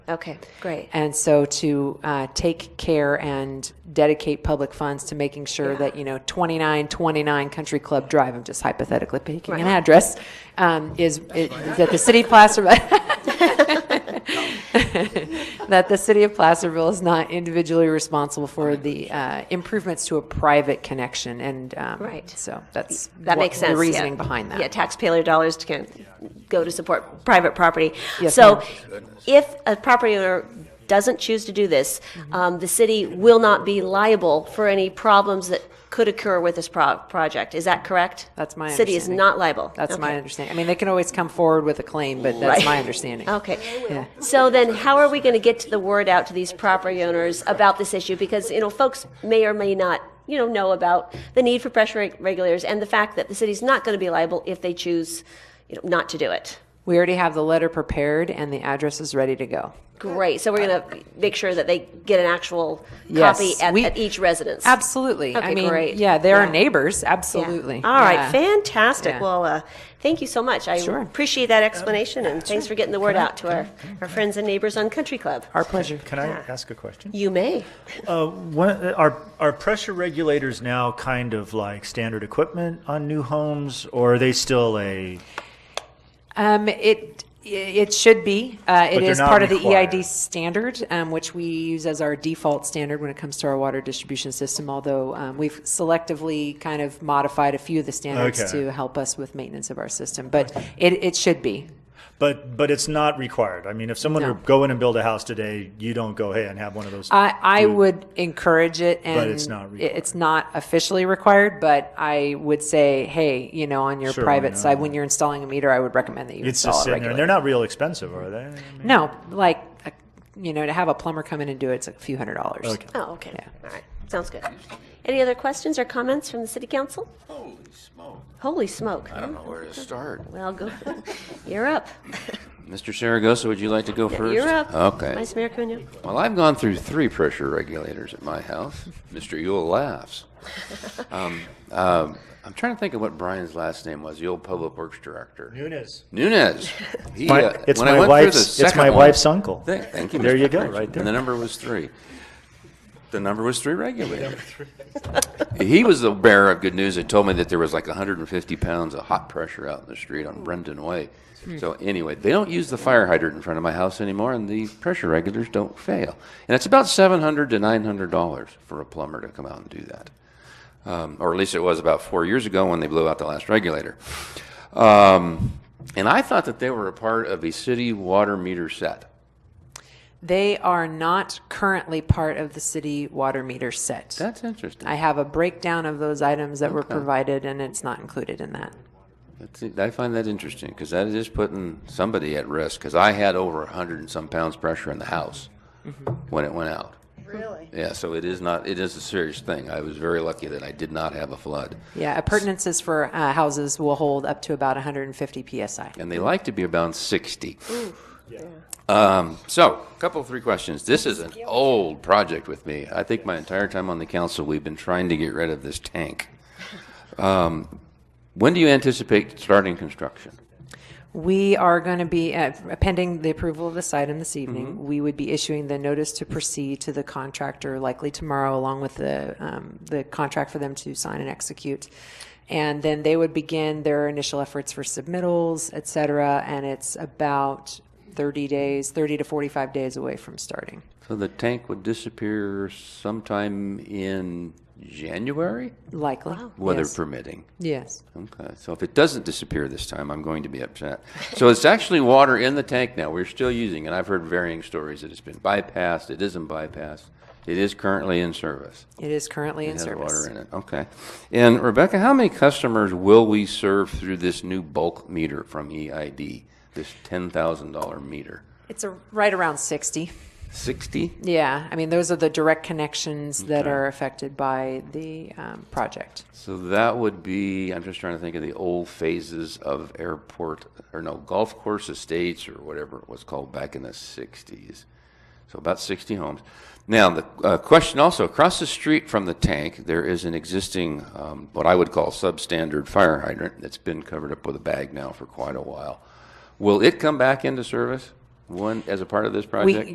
Okay, great. And so to uh, take care and dedicate public funds to making sure that, you know, 2929 Country Club Drive, I'm just hypothetically picking an address, um, is, is that the city of Placerville, that the city of Placerville is not individually responsible for the uh, improvements to a private connection. And um, Right. so that's That what- makes sense. the yeah. reasoning behind that. Yeah, taxpayer dollars can go to support private property. Yes, So ma'am. if a property owner doesn't choose to do this, Mm-hmm. um, the city will not be liable for any problems that could occur with this pro- project. Is that correct? That's my City is understanding. not liable. That's my Okay. understanding. I mean, they can always come forward with a claim, but that's Right. my understanding. Okay. Yeah. So then, how are we going to get to the word out to these property owners about this issue? Because, you know, folks may or may not, you know, know about the need for pressure reg- regulators and the fact that the city's not going to be liable if they choose, you know, not to do it. We already have the letter prepared and the address is ready to go. Great. So we're going to make sure that they get an actual Yes, copy at, we- at each residence. Absolutely. I Okay, mean, great. yeah, they're Yeah. our neighbors. Yeah. Absolutely. All right. Yeah. Fantastic. Yeah. Well, uh, thank you so much. I Sure. appreciate that explanation and thanks for getting the word out to our, our friends and neighbors on Country Club. Our pleasure. Can I ask a question? You may. Uh, one, are, are pressure regulators now kind of like standard equipment on new homes, or are they still a? Um, it, it should be. Uh, it they're is not part of the required. EID standard, um, which we use as our default standard when it comes to our water distribution system, although um, we've selectively kind of modified a few of the standards Okay. to help us with maintenance of our system. But it, it should be. But but it's not required. I mean, if someone No. were to go in and build a house today, you don't go, hey, and have one of those. I, I would encourage it and it's not it- required. it's not officially required, but I would say, hey, you know, on your Sure, why private not? side, when you're installing a meter, I would recommend that you it's install just it sitting there. And regularly. they're not real expensive, are they? No, like, a- you know, to have a plumber come in and do it, it's a few hundred dollars. Okay. Oh, okay. All right. Sounds good. Any other questions or comments from the city council? Holy smoke. Holy smoke. I don't know where to start. Well, go. You're up. Mr. Saragosa, would you like to go first? You're up. Okay. Vice Mayor Cunha. Well, I've gone through three pressure regulators at my house. Mr. Yule laughs. Um, um, I'm trying to think of what Brian's last name was, the old public works director. Nunes. Nunez. He, My- uh, it's when I my went through wife's- it's the my second one- wife's uncle. Th- Thank you. There Mr. you go, Fraser. right there. And the number was three. The number was three regulators. He was the bearer of good news and told me that there was like 150 pounds of hot pressure out in the street on Brendan Way. So anyway, they don't use the fire hydrant in front of my house anymore, and the pressure regulators don't fail. And it's about 700 to 900 dollars for a plumber to come out and do that um, or at least it was about four years ago when they blew out the last regulator. Um, and I thought that they were a part of a city water meter set. They are not currently part of the city water meter set. That's interesting. I have a breakdown of those items that were provided, and it's not included in that. That's, I find that interesting because that is putting somebody at risk. Because I had over a hundred and some pounds pressure in the house when it went out. Mm-hmm. Really? Yeah. So it is not. It is a serious thing. I was very lucky that I did not have a flood. Yeah, appurtenances for uh, houses will hold up to about 150 psi. and they like to be about 60. Um, so, a couple, three questions. This is an old project with me. I think my entire time on the council, we've been trying to get rid of this tank. Um, when do you anticipate starting construction? We are going to be, uh, pending the approval of this item this Mm-hmm. evening, we would be issuing the notice to proceed to the contractor likely tomorrow, along with the, um, the contract for them to sign and execute. And then they would begin their initial efforts for submittals, et cetera, and it's about 30 days, 30 to 45 days away from starting. So the tank would disappear sometime in January, Likely. weather Yes. permitting. Yes. Okay, so if it doesn't disappear this time, I'm going to be upset. So it's actually water in the tank now. We're still using it. I've heard varying stories that it's been bypassed, it isn't bypassed. It is currently in service. It is currently in It has service. water in it, okay. And Rebecca, how many customers will we serve through this new bulk meter from EID, this $10,000 meter? It's a, right around 60. 60? Yeah, I mean, those are the direct connections that are affected by the um, project. So that would be, I'm just trying to think of the old phases of airport, or no, golf course estates, or whatever it was called back in the 60s. So about 60 homes. Now, the uh, question also across the street from the tank, there is an existing, um, what I would call substandard fire hydrant that's been covered up with a bag now for quite a while. Will it come back into service one as a part of this project?